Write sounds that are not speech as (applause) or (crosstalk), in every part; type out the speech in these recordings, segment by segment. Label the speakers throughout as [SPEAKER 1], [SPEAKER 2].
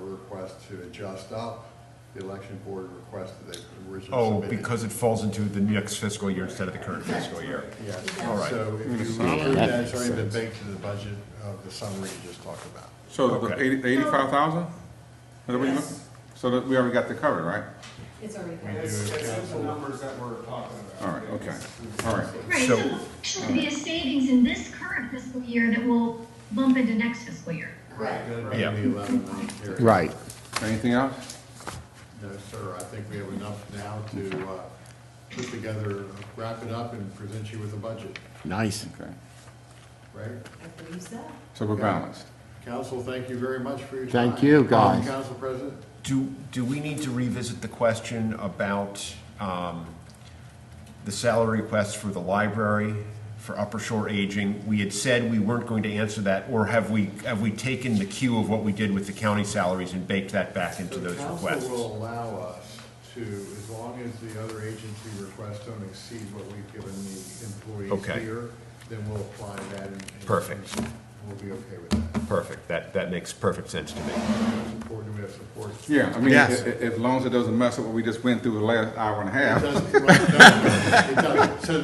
[SPEAKER 1] request to adjust up. The election board requested they originally submitted.
[SPEAKER 2] Oh, because it falls into the next fiscal year instead of the current fiscal year.
[SPEAKER 1] Yes,
[SPEAKER 2] All right.
[SPEAKER 1] so if you approve that, it's already been baked into the budget of the summary you just talked about.
[SPEAKER 3] So the
[SPEAKER 2] Okay.
[SPEAKER 3] eighty- eighty-five thousand?
[SPEAKER 4] Yes.
[SPEAKER 3] So that we already got that covered, right?
[SPEAKER 4] It's already there.
[SPEAKER 5] It's, it's in the numbers that we're talking about.
[SPEAKER 3] All right, okay, all right.
[SPEAKER 6] Right,
[SPEAKER 2] So-
[SPEAKER 6] so there'll actually be a savings in this current fiscal year that will bump into next fiscal year.
[SPEAKER 4] Right.
[SPEAKER 1] That'd be
[SPEAKER 2] Yeah.
[SPEAKER 1] the 11 month period.
[SPEAKER 7] Right.
[SPEAKER 3] Anything else?
[SPEAKER 1] No, sir, I think we have enough now to uh, put together, wrap it up and present you with a budget,
[SPEAKER 7] Nice.
[SPEAKER 3] Okay,
[SPEAKER 1] right?
[SPEAKER 4] I believe so.
[SPEAKER 3] so we're balanced.
[SPEAKER 1] Council, thank you very much for your time.
[SPEAKER 7] Thank you,
[SPEAKER 1] Um,
[SPEAKER 7] guys.
[SPEAKER 1] Council President?
[SPEAKER 2] Do, do we need to revisit the question about um, the salary requests for the library for Upper Shore Aging? We had said we weren't going to answer that, or have we, have we taken the cue of what we did with the county salaries and baked that back into those
[SPEAKER 1] So council will
[SPEAKER 2] requests?
[SPEAKER 1] allow us to, as long as the other agency requests don't exceed what we've given the
[SPEAKER 2] Okay.
[SPEAKER 1] employees here, then we'll apply that and. and
[SPEAKER 2] Perfect.
[SPEAKER 1] We'll be okay with that.
[SPEAKER 2] Perfect, that, that makes perfect sense to me.
[SPEAKER 1] Support, do we have support?
[SPEAKER 3] Yeah, I mean,
[SPEAKER 7] Yes.
[SPEAKER 3] as, as long as it doesn't mess up what we just went through the last hour and a
[SPEAKER 1] It
[SPEAKER 3] half.
[SPEAKER 1] doesn't- well, it doesn't. It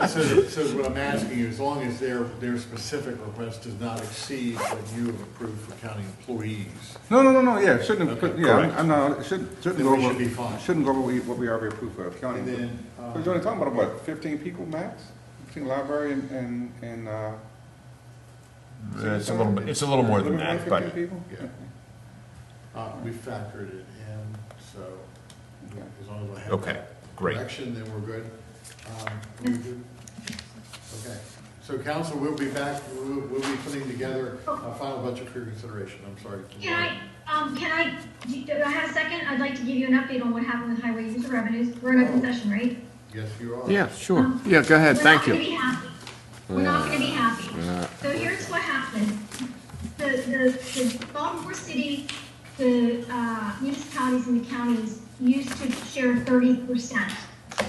[SPEAKER 1] doesn't. So, so, so what I'm asking you, as long as their, their specific request does not exceed what you have approved for county employees,
[SPEAKER 3] No, no, no, no, yeah, shouldn't, have
[SPEAKER 1] Okay.
[SPEAKER 3] put- yeah, I'm-
[SPEAKER 2] Correct.
[SPEAKER 3] I'm not, shouldn't, shouldn't
[SPEAKER 1] Then
[SPEAKER 3] go
[SPEAKER 1] we
[SPEAKER 3] over,
[SPEAKER 1] should be fine.
[SPEAKER 3] shouldn't go over what we- what we already approved for county.
[SPEAKER 1] And then, um, uh,
[SPEAKER 3] We're only talking about, what, fifteen people max? Between library and, and, and, uh.
[SPEAKER 2] It's a little, bit- it's a little more than that, but.
[SPEAKER 3] 15 people?
[SPEAKER 1] Yeah. uh, we factored it in, so as long as I have
[SPEAKER 2] Okay,
[SPEAKER 1] that
[SPEAKER 2] great.
[SPEAKER 1] correction, then we're good. Um, we do- Okay, so council, we'll be back, we'll, we'll be putting together a final budget for your consideration, I'm sorry.
[SPEAKER 6] Can I, um, can I, do do I have a second? I'd like to give you an update on what happened with highway user revenues. We're in open session, right?
[SPEAKER 1] Yes, you are.
[SPEAKER 7] Yeah, sure. Yeah, go ahead,
[SPEAKER 6] We're
[SPEAKER 7] thank
[SPEAKER 6] not
[SPEAKER 7] you.
[SPEAKER 6] gonna be happy. We're not gonna be happy. So here's what happened. The, the, the Baltimore City, the, uh, municipalities and the counties used to share thirty percent.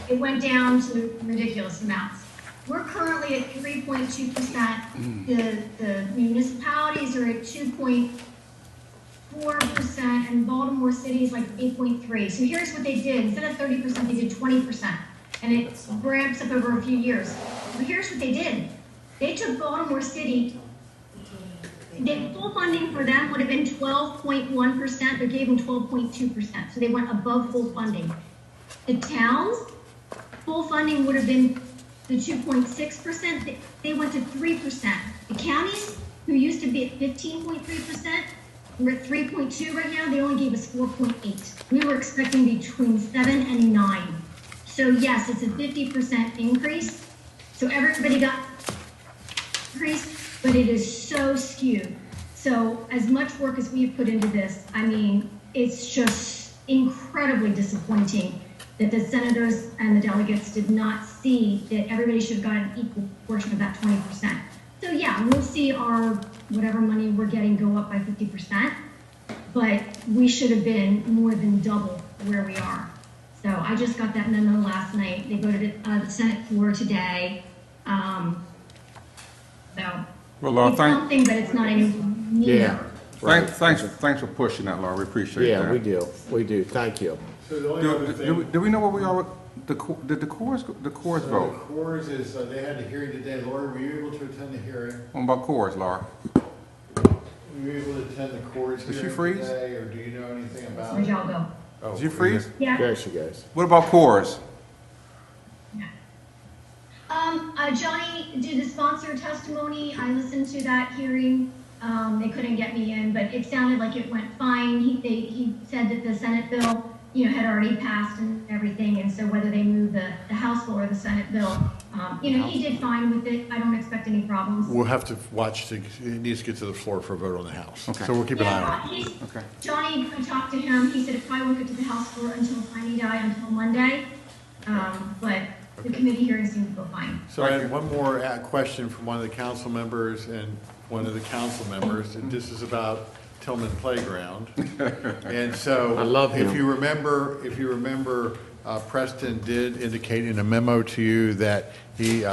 [SPEAKER 6] It went down to ridiculous amounts. We're currently at three point two
[SPEAKER 7] Mm.
[SPEAKER 6] percent. The, the municipalities are at two point four percent, and Baltimore City is like eight point three. So here's what they did, instead of thirty percent, they did twenty percent, and it ramps up over a few years. But here's what they did, they took Baltimore City, the full funding for them would have been twelve point one percent, they gave them twelve point two percent, so they went above full funding. The towns, full funding would have been the two point six percent, they went to three percent. The counties, who used to be at fifteen point three percent, we're at three point two right now, they only gave us four point eight. We were expecting between seven and nine. So yes, it's a fifty percent increase, so everybody got increased, but it is so skewed. So as much work as we've put into this, I mean, it's just incredibly disappointing that the senators and the delegates did not see that everybody should have gotten an equal portion of that twenty percent. So yeah, we'll see our, whatever money we're getting go up by fifty percent, but we should have been more than double where we are. So I just got that memo last night. They voted it, uh, the Senate floor today. Um, so.
[SPEAKER 3] Well, Laura,
[SPEAKER 6] it's
[SPEAKER 3] thank,
[SPEAKER 6] Something, but it's not anything new.
[SPEAKER 7] Yeah.
[SPEAKER 3] Thanks, thanks, thanks for pushing that, Laura, we appreciate that.
[SPEAKER 7] Yeah, we do, we do, thank you.
[SPEAKER 1] So the only other
[SPEAKER 3] Do, do, we-
[SPEAKER 1] thing.
[SPEAKER 3] do we know what we are, the, co- did the cores, the cores
[SPEAKER 1] So the
[SPEAKER 3] vote?
[SPEAKER 1] cores is, uh, they had a hearing today, Laura, were you able to attend the hearing?
[SPEAKER 3] What about cores, Laura?
[SPEAKER 1] Were you able to attend the cores
[SPEAKER 3] Did she
[SPEAKER 1] hearing
[SPEAKER 3] freeze?
[SPEAKER 1] today, or do you know anything about
[SPEAKER 6] Where'd
[SPEAKER 1] it?
[SPEAKER 6] y'all go?
[SPEAKER 1] Oh,
[SPEAKER 3] Did you freeze?
[SPEAKER 6] Yeah.
[SPEAKER 7] There she goes.
[SPEAKER 3] What about cores?
[SPEAKER 6] Um, uh, Johnny did the sponsor testimony. I listened to that hearing. Um, they couldn't get me in, but it sounded like it went fine. He, they, he said that the Senate bill, you know, had already passed and everything. And so whether they move the, the House bill or the Senate bill, um, you know, he did fine with it. I don't expect any problems.
[SPEAKER 1] We'll have to watch, to- it needs to get to the floor for a vote on the House.
[SPEAKER 3] Okay.
[SPEAKER 1] So we'll keep an eye on it.
[SPEAKER 6] Yeah, he's-
[SPEAKER 3] Okay.
[SPEAKER 6] Johnny, I talked to him, he said it probably won't get to the House floor until Friday night, until Monday. Um, but the committee hearing seemed to go fine.
[SPEAKER 1] So I had one more uh, question from one of the council members and one of the council members, and this is about Tillman
[SPEAKER 7] (laughs)
[SPEAKER 1] Playground. And so.
[SPEAKER 7] I love
[SPEAKER 1] If
[SPEAKER 7] him.
[SPEAKER 1] you remember, if you remember, uh, Preston did indicate in a memo to you that he uh,